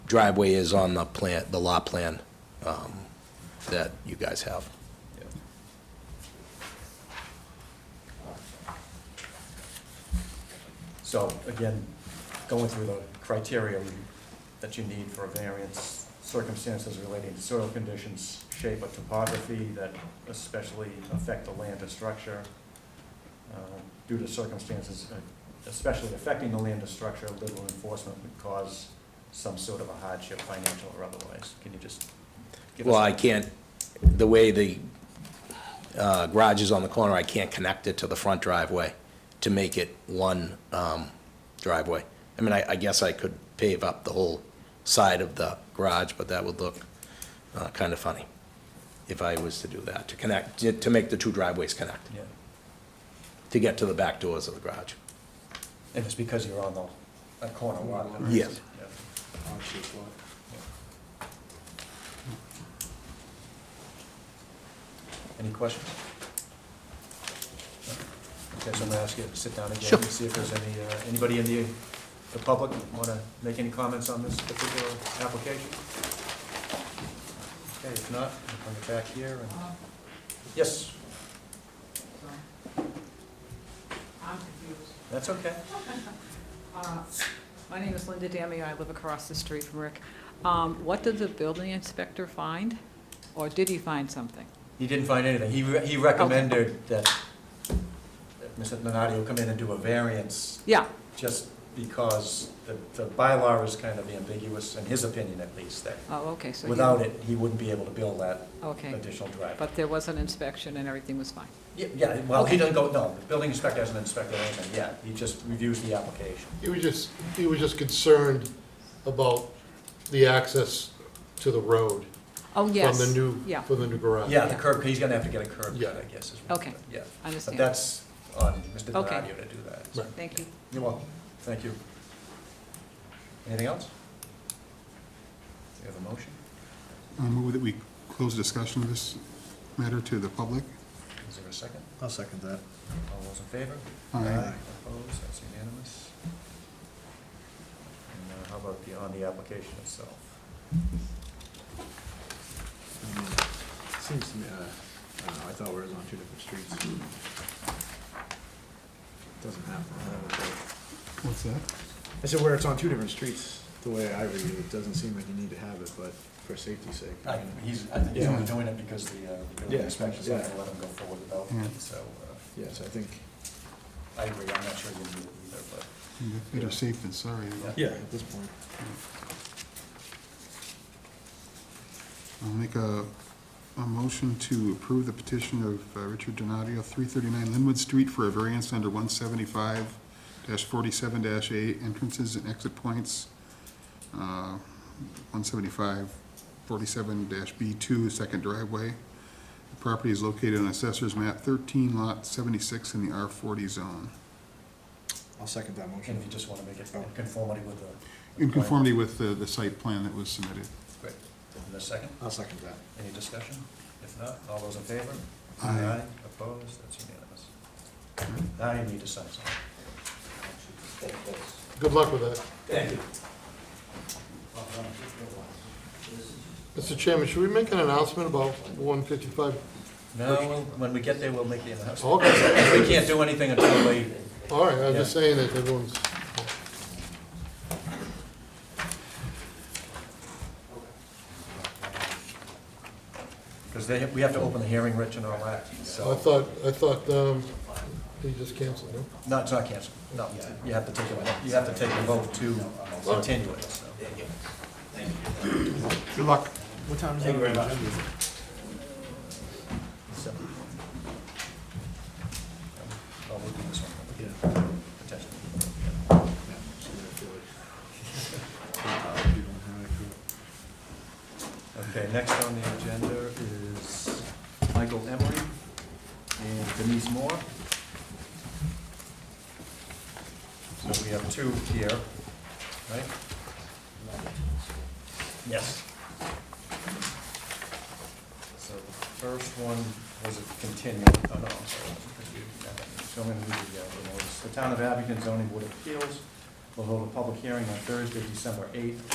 driveway is on the plan, the lot plan um, that you guys have. So again, going through the criteria that you need for a variance, circumstances relating to soil conditions, shape or topography that especially affect the land or structure, uh, due to circumstances uh, especially affecting the land or structure, liberal enforcement would cause some sort of a hardship, financial or otherwise. Can you just give us? Well, I can't, the way the uh, garage is on the corner, I can't connect it to the front driveway to make it one um, driveway. I mean, I I guess I could pave up the whole side of the garage, but that would look uh, kind of funny if I was to do that, to connect, to- to make the two driveways connect, Yeah, to get to the back doors of the garage. and it's because you're on the, a corner lot. Yes. Yeah. Any questions? Okay, so I'm gonna ask you to sit down again and see if there's any, uh, anybody in the, the public want to make any comments on this particular application? Okay, if not, I'll bring it back here Uh, and, yes, So, I'm confused. that's okay. Uh, My name is Linda Damio, I live across the street from Rick. Um, What did the building inspector find? Or did he find something? He didn't find anything. He, re- he recommended that, that Mr. Minardi come in and do a variance Yeah, just because the, the bylaw is kind of ambiguous, in his opinion at least, that oh, okay, so. he- without it, he wouldn't be able to build that Okay, additional driveway. but there was an inspection and everything was fine. Yeah, Yeah, well, he Okay. doesn't go, no, the building inspector hasn't inspected anything yet, he just reviews the application. He was just, he was just concerned about the access to the road Oh, from yes. the new, Yeah, from the new garage. Yeah, the curb, he's gonna have to get a curb Yeah. cut, I guess, is what. Okay. Yeah, but I understand. that's on Mr. Okay. Donadio to do that. Right. Thank you. You're welcome, thank you. Anything else? Do you have a motion? I move that we close discussion of this matter to the public. Is there a second? I'll second that. All those in favor? Aye. Opposed, that's unanimous. And uh, how about the, on the application itself? Seems to me, uh, I don't know, I thought we were on two different streets. Doesn't happen. I don't know. What's that? I said where it's on two different streets, the way I read it, it doesn't seem like you need to have it, but for safety's sake. I, he's, I think he's Yeah. only doing it because the, uh, the building Yeah, inspector's not gonna yeah. let him go forward without Yeah. it, so, uh, Yes, I think, I agree, I'm not sure you need it either, but. Better safe than sorry. yeah, at this point. I'll make a, a motion to approve the petition of uh, Richard Donadio, three thirty-nine Linwood Street for a variance under one seventy-five forty-seven eight entrances and exit points. Uh, 175 47 B two, second driveway. The property is located on Assessor's Map thirteen, lot seventy-six in the R forty zone. I'll second that And motion. if you just wanna make it in conformity with the. Oh. In conformity with the, the site plan that was submitted. Great. And a second, I'll second that. any discussion? If not, all those in favor? Aye. Opposed, that's unanimous. Now you need to sign something. Good luck with that. Thank you. Mr. Chairman, should we make an announcement about one fifty-five? No, we'll- when we get there, we'll make the announcement. Okay, We can't do anything until we, all right, I'm just saying that everyone's, because they, we have to open the hearing, Rich, and all that, I so. thought, I thought, um, he just canceled, no? No, it's not canceled, no, you have to take a, you have to take a vote to continue it, so. Good luck. What time is it? Thank you very much. So. I'll look at this one, Yeah. potentially. yeah, so I feel like- You don't have Okay, it, next on the agenda is Michael Emery and Denise Moore. So we have two here, right? Yes. So the first one was a continued, oh no, I'm sorry. because we didn't have that. So I'm gonna read the, uh, the notice. The Town of Abington zoning board of appeals will hold a public hearing on Thursday, December eighth,